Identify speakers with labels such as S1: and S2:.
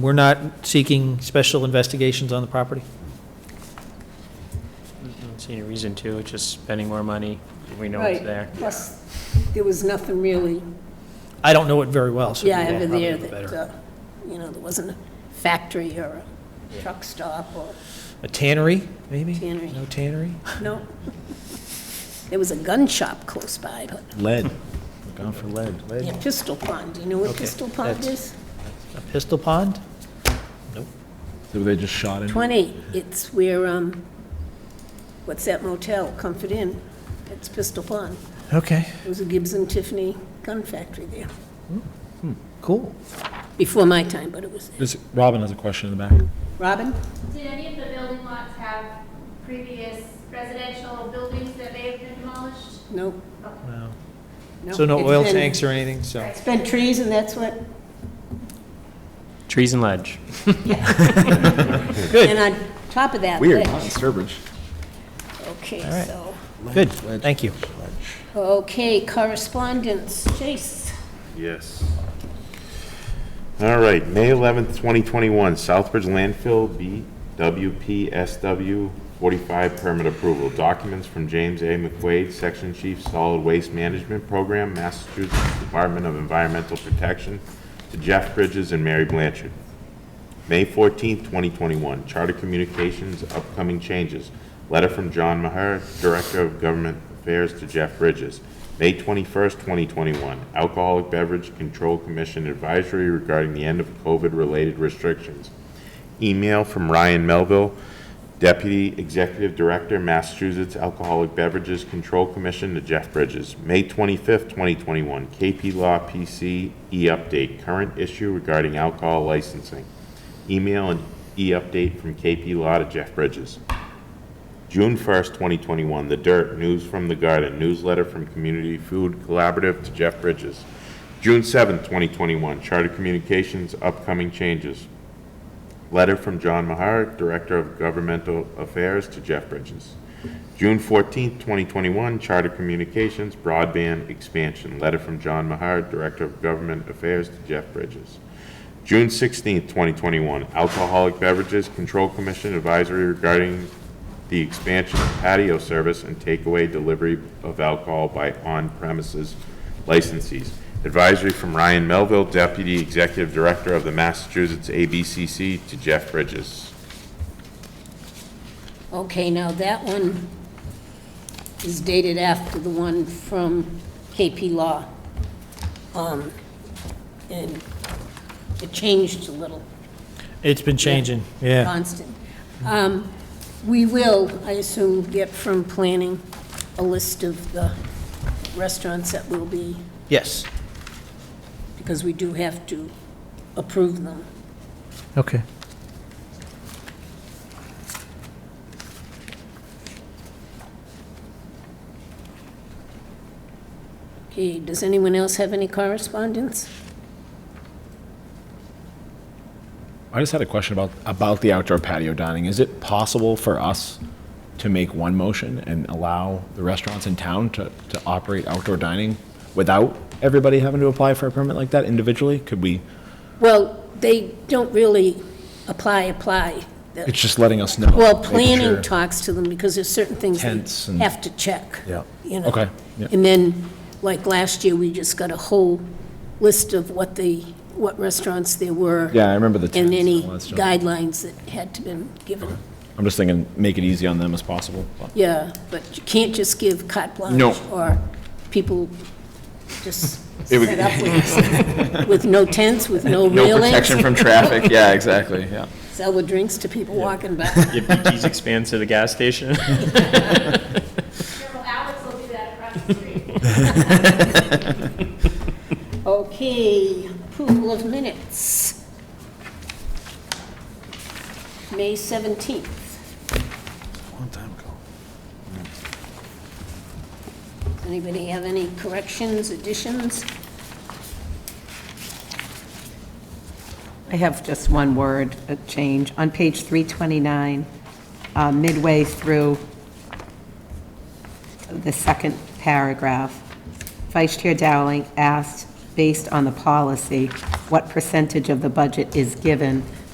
S1: We're not seeking special investigations on the property?
S2: I don't see any reason to, it's just spending more money, we know it's
S3: Right.
S2: there.
S3: Plus, there was nothing really,
S1: I don't know it very well, so. you
S3: yeah, over
S1: probably
S3: there
S1: know
S3: that,
S1: better.
S3: uh, you know, there wasn't a factory or a truck stop or,
S1: A tannery, maybe?
S3: Tannery.
S1: No tannery?
S3: no. There was a gun shop close by, but
S4: Lead. Gone for lead.
S3: yeah, Pistol Pond, do you know what
S1: Okay,
S3: Pistol Pond
S1: that's-
S3: is?
S1: A pistol pond?
S4: So they just shot in.
S3: 20, it's where, um, what's that motel, Comfort Inn? It's Pistol Pond.
S1: Okay,
S3: There was a Gibbs and Tiffany gun factory there,
S1: cool.
S3: before my time, but it was there.
S4: This- Robin has a question in the back.
S3: Robin?
S5: Did any of the building lots have previous residential buildings that may have been demolished?
S3: No,
S1: Wow.
S3: no.
S1: So no
S3: It's
S1: oil
S3: been-
S1: tanks or anything, so.
S3: It's been trees and that's what,
S2: Trees and ledge.
S1: Good.
S3: and on top of that. ledge.
S4: Weird, not in Sturbridge.
S3: Okay,
S1: right.
S3: so,
S1: Good, thank you.
S3: okay, correspondence, Chase.
S6: Yes. All right, May 11th, 2021, Southbridge landfill BWPSW 45 permit approval. Documents from James A. McQuaid, Section Chief, Solid Waste Management Program, Massachusetts Department of Environmental Protection, to Jeff Bridges and Mary Blanchard. May 14, 2021, Charter Communications, upcoming changes. Letter from John Maher, Director of Government Affairs to Jeff Bridges. May 21, 2021, Alcoholic Beverage Control Commission advisory regarding the end of COVID-related restrictions. Email from Ryan Melville, Deputy Executive Director, Massachusetts Alcoholic Beverages Control Commission to Jeff Bridges. May 25th, 2021, KP Law PC e-update, current issue regarding alcohol licensing. Email and e-update from KP Law to Jeff Bridges. June 1st, 2021, The Dirt, News from the Garden, newsletter from Community Food Collaborative to Jeff Bridges. June 7th, 2021, Charter Communications, upcoming changes. Letter from John Mahar, Director of Governmental Affairs to Jeff Bridges. June 14th, 2021, Charter Communications, broadband expansion. Letter from John Mahar, Director of Government Affairs to Jeff Bridges. June 16th, 2021, Alcoholic Beverages Control Commission advisory regarding the expansion of patio service and takeaway delivery of alcohol by on-premises licensees. Advisory from Ryan Melville, Deputy Executive Director of the Massachusetts ABCC, to Jeff Bridges.
S3: Okay, now that one is dated after the one from KP Law. Um, And it changed a little.
S1: It's been changing, yeah.
S3: Constant. Um, We will, I assume, get from planning a list of the restaurants that will be,
S1: Yes,
S3: because we do have to approve them.
S1: okay.
S3: Okay, does anyone else have any correspondence?
S4: I just had a question about, about the outdoor patio dining. Is it possible for us to make one motion and allow the restaurants in town to, to operate outdoor dining without everybody having to apply for a permit like that individually? Could we,
S3: Well, they don't really apply, apply.
S4: it's just letting us know.
S3: Well,
S4: making
S3: planning
S4: sure.
S3: talks to them because there's certain things
S4: Tents
S3: they
S4: and-
S3: have to check.
S4: Yeah.
S3: you know.
S4: Okay, yeah.
S3: And then, like last year, we just got a whole list of what the, what restaurants there were.
S4: Yeah, I remember the tents
S3: And
S4: and
S3: any
S4: all that stuff.
S3: guidelines that had to been given.
S4: I'm just thinking, make it easy on them as possible. but-
S3: Yeah, but you can't just give carte blanche.
S4: No.
S3: Or people just set up with, with no tents, with no
S7: No
S3: railings,
S7: protection from traffic, yeah, exactly, yeah.
S3: sell the drinks to people walking by.
S2: If BT's expands to the gas station.
S5: Well, Alex will do that across the street.
S3: Okay, approval of minutes. May 17th. Does Anybody have any corrections, additions?
S8: I have just one word, a change. On page 329, uh, midway through the second paragraph, Vice Chair Dowling asked, based on the policy, what percentage of the budget is given